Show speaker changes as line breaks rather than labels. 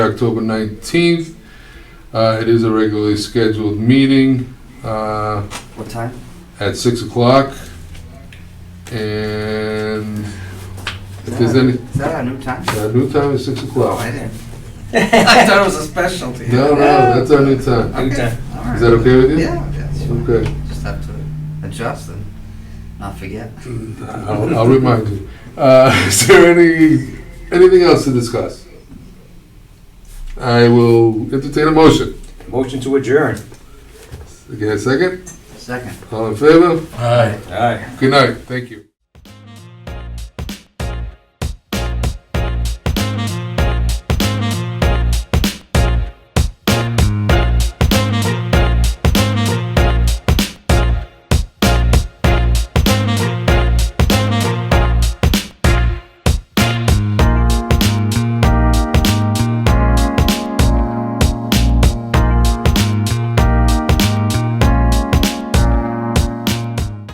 October 19th. Uh, It is a regularly scheduled meeting uh,
What time?
at 6 o'clock. And if there's any,
Is that our new time?
our new time is 6
Oh, I
o'clock.
didn't. I thought it was a specialty. Oh.
No, no, that's our new time.
Okay,
Anytime.
all right.
Is that okay with you?
Yeah, that's fine.
Okay.
Just have to adjust and not forget.
I'll I'll remind you. Uh, Is there any, anything else to discuss? I will entertain a motion.
Motion to adjourn.
Okay, a second?
Second.
All in favor?
Aye.
Good night, thank you.